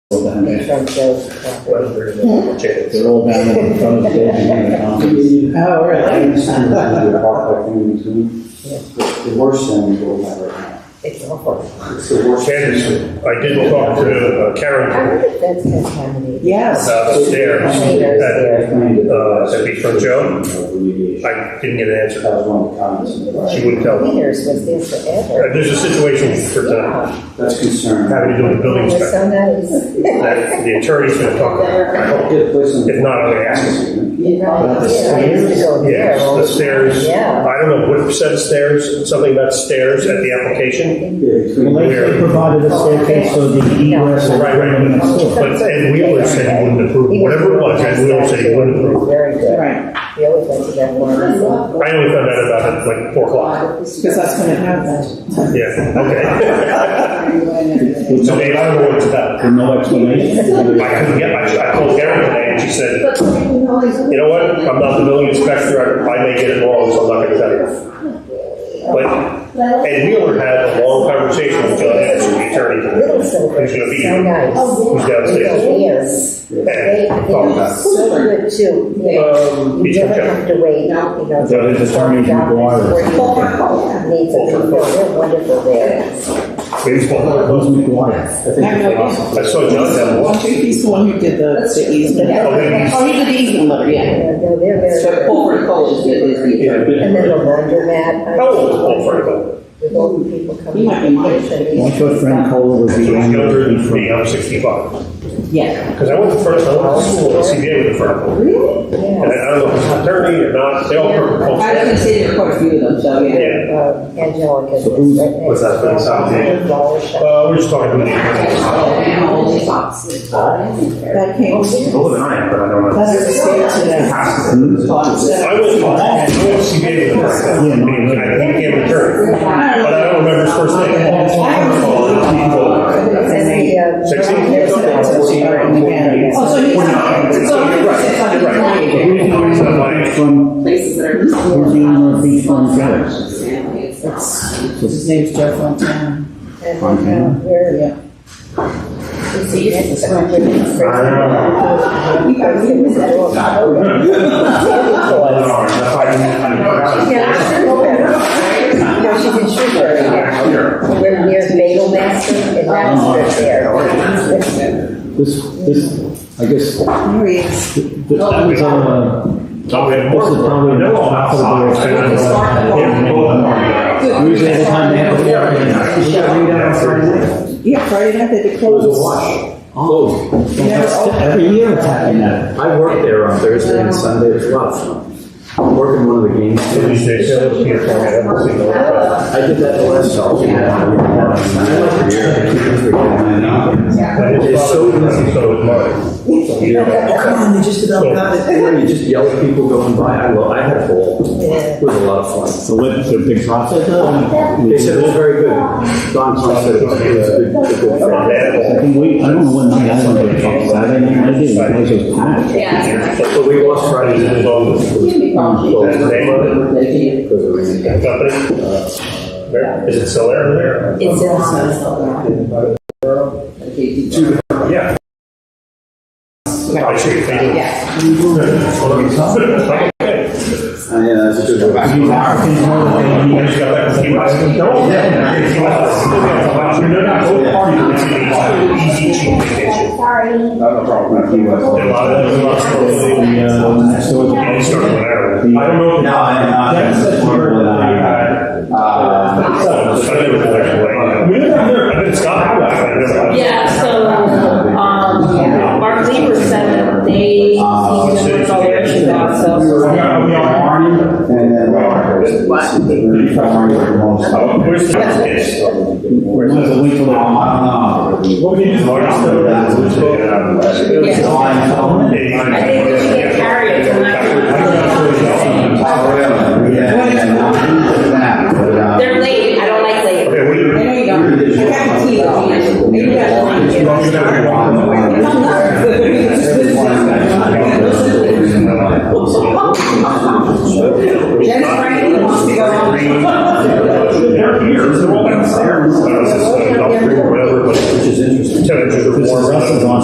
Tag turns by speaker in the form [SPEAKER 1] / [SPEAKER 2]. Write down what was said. [SPEAKER 1] down
[SPEAKER 2] in
[SPEAKER 1] there.
[SPEAKER 2] front of Joe's property.
[SPEAKER 3] Whether the potatoes.
[SPEAKER 1] They're all down in front of the building in the commons.
[SPEAKER 2] Oh,
[SPEAKER 1] I
[SPEAKER 2] really?
[SPEAKER 1] understand that you're hard working in between. It's the worst thing we all have right now.
[SPEAKER 2] It's awful.
[SPEAKER 1] It's the worst. thing.
[SPEAKER 4] Candace, I did talk to uh,
[SPEAKER 2] I
[SPEAKER 4] Karen
[SPEAKER 2] wonder if that's contaminated.
[SPEAKER 4] about
[SPEAKER 2] Yes.
[SPEAKER 4] the stairs. that-
[SPEAKER 1] Uh,
[SPEAKER 4] that'd be from Joan?
[SPEAKER 1] Remediation.
[SPEAKER 4] I didn't get an answer.
[SPEAKER 1] That was one of the comments. in the
[SPEAKER 4] She
[SPEAKER 1] prior.
[SPEAKER 4] wouldn't tell me.
[SPEAKER 2] Cleaners was there forever.
[SPEAKER 4] Uh, There's a situation for that,
[SPEAKER 2] Yeah.
[SPEAKER 1] That's concern.
[SPEAKER 4] having to do with the building
[SPEAKER 2] It was
[SPEAKER 4] inspector,
[SPEAKER 2] so nice.
[SPEAKER 4] that the attorney's gonna talk about. I hope.
[SPEAKER 1] Good place in-
[SPEAKER 4] If not, I'm gonna ask.
[SPEAKER 2] You know,
[SPEAKER 1] About the
[SPEAKER 2] yeah, I used to
[SPEAKER 1] stairs?
[SPEAKER 2] go there
[SPEAKER 4] Yes,
[SPEAKER 2] all
[SPEAKER 4] the stairs,
[SPEAKER 2] Yeah.
[SPEAKER 4] I don't know what said stairs, something about stairs at the application.
[SPEAKER 1] Yeah, between-
[SPEAKER 5] Like they provided a staircase so the egress and
[SPEAKER 4] Right, right,
[SPEAKER 5] right.
[SPEAKER 4] but Ed Wheeler said he wouldn't approve, whatever it was, Ed Wheeler said he wouldn't approve.
[SPEAKER 2] Very good.
[SPEAKER 6] Right,
[SPEAKER 2] We always went to that one.
[SPEAKER 4] I only found out about it like four o'clock,
[SPEAKER 6] because that's when it happened.
[SPEAKER 4] yeah, okay.
[SPEAKER 1] With
[SPEAKER 4] So
[SPEAKER 1] no-
[SPEAKER 4] Dave, I don't know what it's about.
[SPEAKER 1] with no explanation.
[SPEAKER 4] I couldn't get, I I called Karen today and she said, you know what, I'm not the building inspector, I I may get it wrong, so I'm not gonna tell you. But Ed Wheeler had a long conversation with John Anderson, the attorney,
[SPEAKER 2] Little
[SPEAKER 4] who's
[SPEAKER 2] silver,
[SPEAKER 4] gonna be
[SPEAKER 2] so
[SPEAKER 4] here.
[SPEAKER 2] nice.
[SPEAKER 4] Who's downstairs?
[SPEAKER 2] Yes. They,
[SPEAKER 4] And
[SPEAKER 2] they
[SPEAKER 4] talk about
[SPEAKER 2] are so good too. They-
[SPEAKER 4] Um,
[SPEAKER 2] You
[SPEAKER 4] Beecham
[SPEAKER 2] never
[SPEAKER 4] County.
[SPEAKER 2] have to wait, you know.
[SPEAKER 5] So his attorney can go on.
[SPEAKER 2] Doctors, Needs a people, they're wonderful there.
[SPEAKER 5] Those make water.
[SPEAKER 4] I saw John had one.
[SPEAKER 6] Well, he's the one who did the, the easement.
[SPEAKER 4] Oh, he's-
[SPEAKER 6] Oh, he did the easement letter, yeah.
[SPEAKER 2] Yeah, No, they're very.
[SPEAKER 6] So Paul Cole did his easement.
[SPEAKER 1] Yeah, been-
[SPEAKER 2] And then the laundromat. I-
[SPEAKER 4] How old is Paul Franco?
[SPEAKER 2] With all the people coming.
[SPEAKER 6] He might be my age.
[SPEAKER 5] Once your friend Cole was
[SPEAKER 4] He's
[SPEAKER 5] the only
[SPEAKER 4] younger
[SPEAKER 5] one
[SPEAKER 4] than
[SPEAKER 5] from.
[SPEAKER 4] me, I'm sixty-five.
[SPEAKER 6] Yeah.
[SPEAKER 4] Because I went to first, I went to school at CBA with the Franco.
[SPEAKER 6] Really?
[SPEAKER 4] And I
[SPEAKER 2] Yes.
[SPEAKER 4] don't know if he's an attorney or not, they all work for Paul
[SPEAKER 6] I
[SPEAKER 4] Franco.
[SPEAKER 6] haven't seen quite a few of them, so yeah.
[SPEAKER 4] Yeah.
[SPEAKER 2] Um, Angelica.
[SPEAKER 5] So who's-
[SPEAKER 2] right next
[SPEAKER 4] what's that,
[SPEAKER 2] to her.
[SPEAKER 4] Southgate? Uh, we're just talking about the.
[SPEAKER 6] That came,
[SPEAKER 4] Older than I am, but I don't
[SPEAKER 6] that is a state today.
[SPEAKER 4] I went to, I went to CBA with the Franco. I mean, I became an attorney, but I don't remember his first name.
[SPEAKER 2] That's the, uh,
[SPEAKER 4] Sixteen?
[SPEAKER 2] there's a-
[SPEAKER 6] Oh, so he's, so he's six hundred
[SPEAKER 4] Right.
[SPEAKER 6] twenty.
[SPEAKER 5] From,
[SPEAKER 7] places that are.
[SPEAKER 5] who's the owner of Beach Farm Terrace?
[SPEAKER 6] His name's Joe Fontana.
[SPEAKER 2] And, uh, where,
[SPEAKER 6] Yeah.
[SPEAKER 2] It's the next one, but it's first. You guys give us that one. No, she's in Shrewsbury. We're near Bagel Master and Master there.
[SPEAKER 5] This, this, I guess, th-
[SPEAKER 6] There he is.
[SPEAKER 5] th- that was, uh, this is probably.
[SPEAKER 4] They're all outside.
[SPEAKER 5] Yeah,
[SPEAKER 4] Yeah.
[SPEAKER 5] Usually every time they have a hearing.
[SPEAKER 6] Yeah, Friday night they closed.
[SPEAKER 5] Oh. Every year it's happening now.
[SPEAKER 8] I work there on Thursday and Sunday as well. I'm working one of the games.
[SPEAKER 4] These days, they're here for me, I haven't seen them.
[SPEAKER 8] I did that the last
[SPEAKER 4] It's so easy, so it's mine.
[SPEAKER 8] year.
[SPEAKER 6] Come on, they just
[SPEAKER 4] So-
[SPEAKER 8] You just yell at people going by. I lo- I had a ball.
[SPEAKER 2] Yeah.
[SPEAKER 8] It was a lot of fun.
[SPEAKER 5] So what, the big profit? uh,
[SPEAKER 8] They said it was very good. Don Tom said it was good. It was a good
[SPEAKER 4] I'm
[SPEAKER 8] friend.
[SPEAKER 4] mad at
[SPEAKER 5] I
[SPEAKER 4] all.
[SPEAKER 5] think we, I don't know what night I went to the talk, Saturday night I did, it was just packed.
[SPEAKER 8] But we lost Friday night. Because of rain.
[SPEAKER 4] Company? Where, is it still there or there?
[SPEAKER 2] It's in.
[SPEAKER 4] Yeah. I see, thank you.
[SPEAKER 6] Yes.
[SPEAKER 4] Okay.
[SPEAKER 1] Yeah, that's a good one.
[SPEAKER 5] These Africans know that they need
[SPEAKER 4] I just got back from Cuba. I said, "No, yeah, yeah, yeah." They're not going party, it's an easy, easy, cheap vacation.
[SPEAKER 1] Not a problem. If you
[SPEAKER 4] A
[SPEAKER 1] want.
[SPEAKER 4] lot of them, a lot of them,
[SPEAKER 5] the, uh, next door to-
[SPEAKER 4] they start with Ireland. I don't know. if-
[SPEAKER 1] No, I'm not.
[SPEAKER 4] That's the word that I had.
[SPEAKER 1] Uh,
[SPEAKER 4] I never went away. I mean, I've never- I've been in Scotland, but I've never-
[SPEAKER 7] Yeah, so, um, Mark Lieber said that they, it's all their issues out, so.
[SPEAKER 4] Yeah, we are.
[SPEAKER 1] And then. You're probably where you're most-
[SPEAKER 4] Oh, Where's the kids?
[SPEAKER 5] Where's the link to the-
[SPEAKER 1] I don't know.
[SPEAKER 4] What we need is large stuff.
[SPEAKER 1] It's a line phone.
[SPEAKER 7] I think we should get Harriet to let her-
[SPEAKER 1] Oh, really? Yeah. Yeah. But, uh,
[SPEAKER 7] They're late, I don't like late.
[SPEAKER 4] Okay, what do you?
[SPEAKER 6] I know you don't. I got the key. though. You got the key.
[SPEAKER 4] Dennis Franklin wants to go on. They're here, they're all downstairs. I don't know, it's just, uh, about three or whatever, but
[SPEAKER 1] Which is interesting.
[SPEAKER 4] temperatures are warm.
[SPEAKER 5] Russell's on